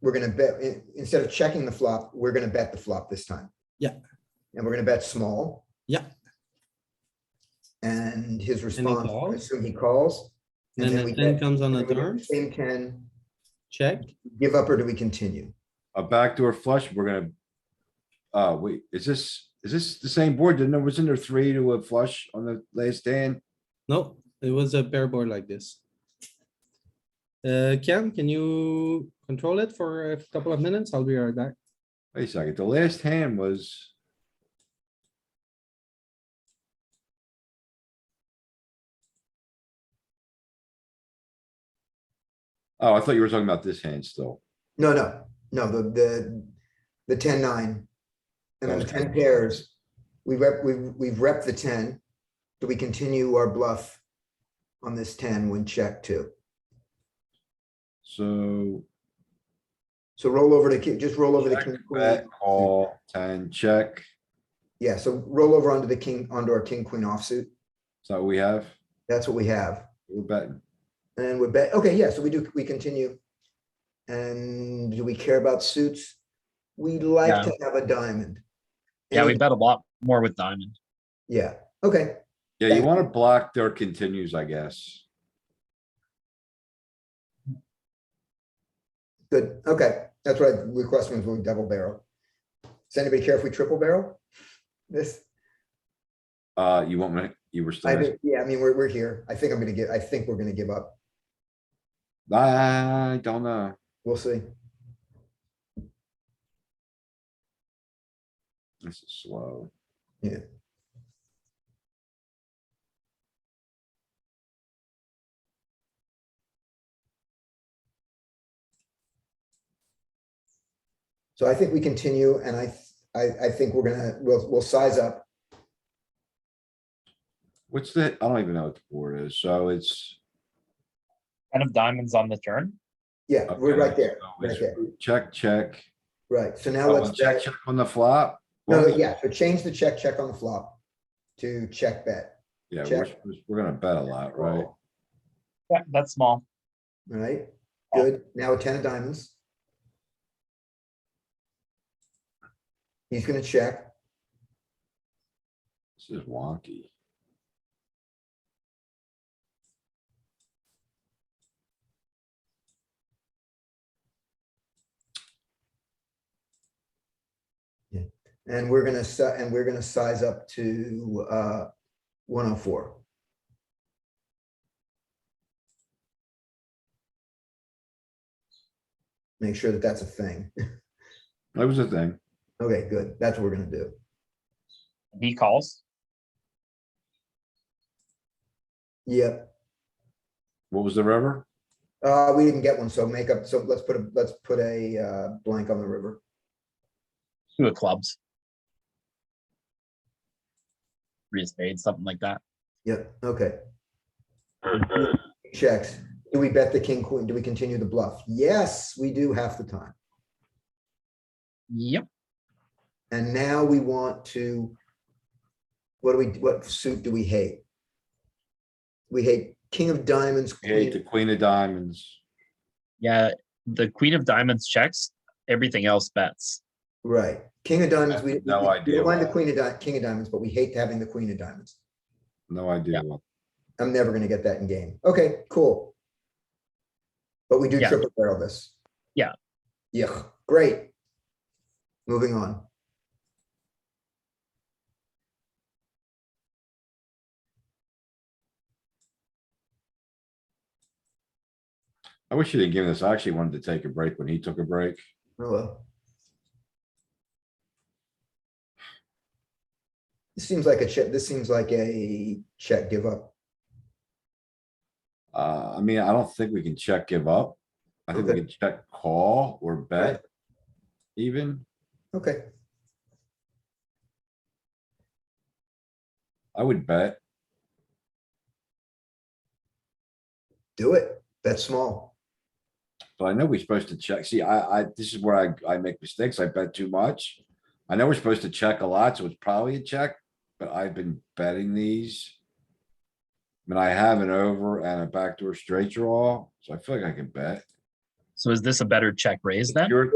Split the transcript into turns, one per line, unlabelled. we're gonna bet, in- instead of checking the flop, we're gonna bet the flop this time.
Yeah.
And we're gonna bet small.
Yeah.
And his response, I
calls.
assume he calls. and
Then
then we
the ten
bet-
comes on the
and we
turn,
Same ten,
check.
give up or do we continue?
A backdoor flush, we're gonna. Uh, wait, is this, is this the same board? Didn't there, wasn't there three to a flush on the last hand?
No, it was a pair board like this. Uh, Ken, can you control it for a couple of minutes? I'll be right back.
Wait a second, the last hand was. Oh, I thought you were talking about this hand still.
No, no, no, the, the, the ten nine. And then the ten pairs, we rep, we, we've rep the ten. Do we continue our bluff on this ten when check too?
So
So roll over to, ki- just roll over to
Check,
king. queen.
bet, call, ten, check.
Yeah, so roll over onto the king, onto our king, queen offsuit.
Is that what we have?
That's what we have.
We're betting.
And then we're bet, okay, yeah, so we do, we continue. And do we care about suits? We like
Yeah.
to have a diamond.
Yeah, we
And-
bet a lot more with diamond.
Yeah, okay,
Yeah, you wanna block their continues, I guess.
good, okay. That's what I request when we double barrel. Does anybody care if we triple barrel? This,
Uh, you want me, you were
I,
still.
think- yeah, I mean, we're, we're here. I think I'm gonna get, I think we're gonna give up.
I don't know.
We'll see.
This is slow.
So I think we continue and I, th- I, I think we're gonna, we'll, we'll size up.
What's the, I don't even know what the board is, so it's.
Ten of diamonds on the turn.
Yeah, we're
okay,
right there,
so
right
it's
there.
Check, check.
Right, so now
Oh,
let's
and Check,
check.
check on the flop.
No,
Well,
yeah, so change the check, check on the flop to check bet,
Yeah, we're,
check.
supposed- we're gonna bet a lot, right?
Yeah, that's small.
All right. Good, now a ten of diamonds. He's gonna check,
This is wonky.
and we're gonna, si- and we're gonna size up to, uh, one oh four. Make sure that that's a thing.
That was a thing.
Okay, good, that's what we're gonna do.
He calls.
Yep,
What was the river?
Uh, we didn't get one, so make up, so let's put a, let's put a uh, blank on the river.
Two of clubs. Three of spades, something like that.
Yep, okay. Checks. Do we bet the king, queen? Do we continue the bluff? Yes, we do half the time.
Yep.
And now we want to, what do we, what suit do we hate? We hate king of diamonds,
Hate the
queen,
queen of diamonds.
Yeah, the queen of diamonds checks. Everything else bets.
right? King of diamonds, we.
have no
we- We
idea
don't mind the
why.
queen of di, king of diamonds, but we hate having the queen of diamonds.
No idea. what-
I'm never gonna get that in game. Okay, cool. But we do
Yeah.
triple barrel this.
Yeah.
Yeah, great. Moving on.
I wish you didn't give me this. I actually wanted to take a break when he took a break.
Oh well. This seems like a check, this seems like a check give up.
Uh, I mean, I don't think we can check give up. I think we
Okay.
can check call or bet. Even,
Okay,
I would bet.
do it. That's small.
But I know we're supposed to check. See, I, I, this is where I, I make mistakes. I bet too much. I know we're supposed to check a lot, so it's probably a check, but I've been betting these. I mean, I have an over and a backdoor straight draw, so I feel like I can bet.
So is this a better check raise then?
You're-